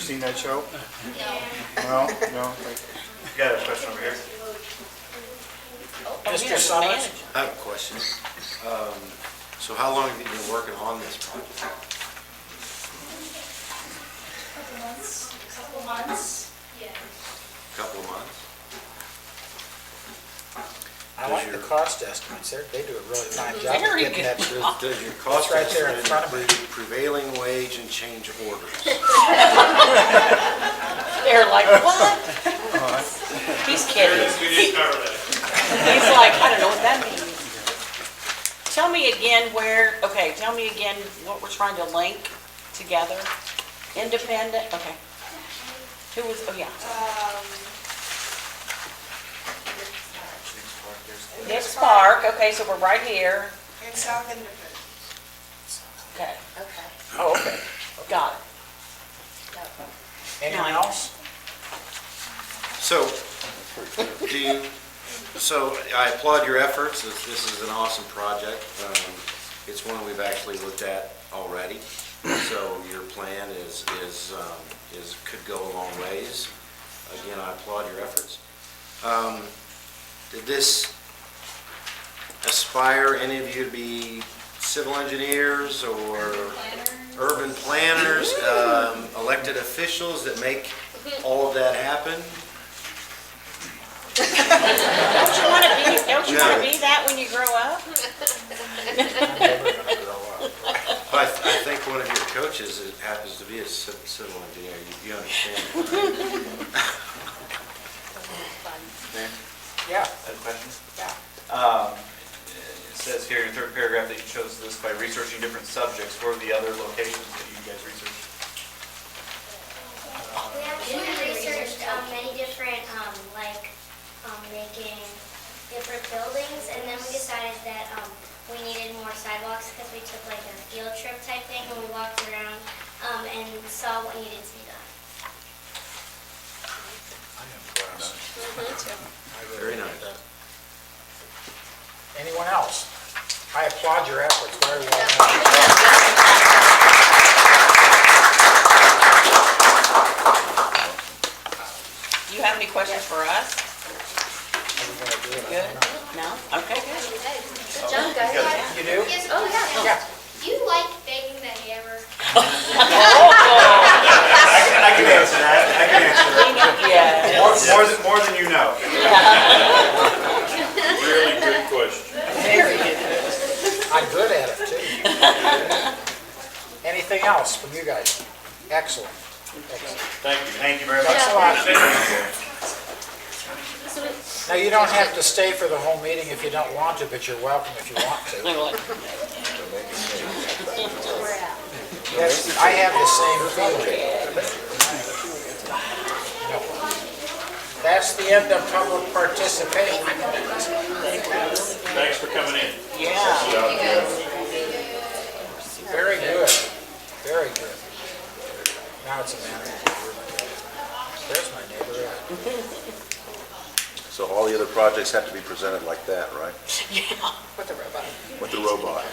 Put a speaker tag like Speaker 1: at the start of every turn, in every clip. Speaker 1: seen that show? No. No, no, like,
Speaker 2: You got a question over here?
Speaker 3: Mr. Summers?
Speaker 4: I have a question. Um, So how long have you been working on this project?
Speaker 5: months, couple months, yeah.
Speaker 4: A Couple of months?
Speaker 3: I like the cost estimates, they're, Mm-hmm. they do a really fine job of
Speaker 6: Very
Speaker 3: getting that
Speaker 6: good.
Speaker 3: through.
Speaker 4: Does your cost
Speaker 3: It's right there in
Speaker 4: estimate
Speaker 3: front of me.
Speaker 4: include prevailing wage and change orders?
Speaker 6: They're like, what? He's kidding.
Speaker 2: We
Speaker 6: He-
Speaker 2: did cover that.
Speaker 6: He's like, I don't know what that means. Tell me again where, okay, tell me again what we're trying to link together. Independent, okay. Who was, oh, yeah. Nick's Park, okay, so we're right here.
Speaker 5: And South Independence.
Speaker 6: Okay,
Speaker 5: Okay.
Speaker 6: oh, okay, got it.
Speaker 3: Anyone else?
Speaker 4: So, do you, so I applaud your efforts, this this is an awesome project. Um, It's one we've actually looked at already, so your plan is, is, um, is, could go a long ways. Again, I applaud your efforts. Um, Did this aspire any of you to be civil engineers or urban planners, um, elected officials that make all of that happen?
Speaker 6: Don't you want to be, don't you want to
Speaker 4: No.
Speaker 6: be that when you grow up?
Speaker 4: But I th- I think one of your coaches is- happens to be a ci- civil engineer, You- you understand.
Speaker 3: Yeah.
Speaker 2: Other questions?
Speaker 3: Yeah.
Speaker 2: Um, It says here in the third paragraph that you chose this by researching different subjects. What are the other locations that you guys researched?
Speaker 7: We actually researched um, many different, um, like, um, making different buildings, and then we decided that um, we needed more sidewalks because we took like a field trip type thing, and we walked around um, and saw what needed to be done.
Speaker 3: Mm-hmm,
Speaker 4: Very nice.
Speaker 3: Anyone else? I applaud your efforts, very well done.
Speaker 6: Do you have any questions for us?
Speaker 3: Are we gonna do it? I
Speaker 6: Good?
Speaker 3: don't know.
Speaker 6: No? Okay, good.
Speaker 5: Good job, guys.
Speaker 3: You do?
Speaker 7: Oh, yeah.
Speaker 3: Yeah.
Speaker 7: Do you like banging the hammer?
Speaker 6: Oh!
Speaker 2: I can answer that, I can answer that.
Speaker 6: Yeah.
Speaker 2: More, more than, more than you know.
Speaker 8: Really good question.
Speaker 3: I'm good at it, too. Anything else from you guys? Excellent. Excellent.
Speaker 2: Thank you. Thank you very much.
Speaker 3: Thanks a lot. Now, you don't have to stay for the whole meeting if you don't want to, but you're welcome if you want to.
Speaker 6: They're like,
Speaker 3: Yes, I have the same feeling. That's the end of public participation.
Speaker 8: Thanks for coming in.
Speaker 6: Yeah.
Speaker 3: Very good, very good. Now it's a matter of, there's my neighbor.
Speaker 9: So all the other projects have to be presented like that, right? Yeah. With the robot. With the robot.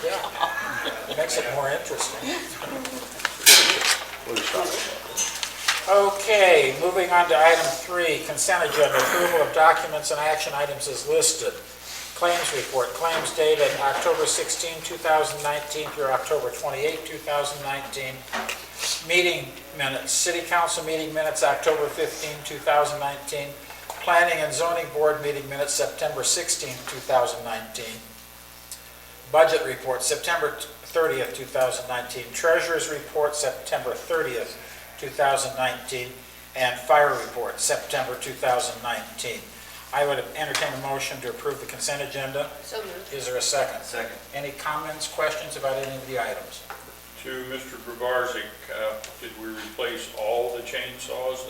Speaker 3: Makes it more interesting.
Speaker 9: What a shot.
Speaker 3: Okay, moving on to item three, consent agenda, approval of documents and action items is listed. Claims report, claims dated October 16, 2019 through October 28, 2019. Meeting minutes, city council meeting minutes, October 15, 2019. Planning and zoning board meeting minutes, September 16, 2019. Budget report, September 30th, 2019. Treasurer's report, September 30th, 2019. And fire report, September 2019. I would entertain a motion to approve the consent agenda.
Speaker 6: So moved.
Speaker 3: Is there a second?
Speaker 2: Second.
Speaker 3: Any comments, questions about any of the items?
Speaker 8: To Mr. Grabarczyk, uh, did we replace all the chainsaws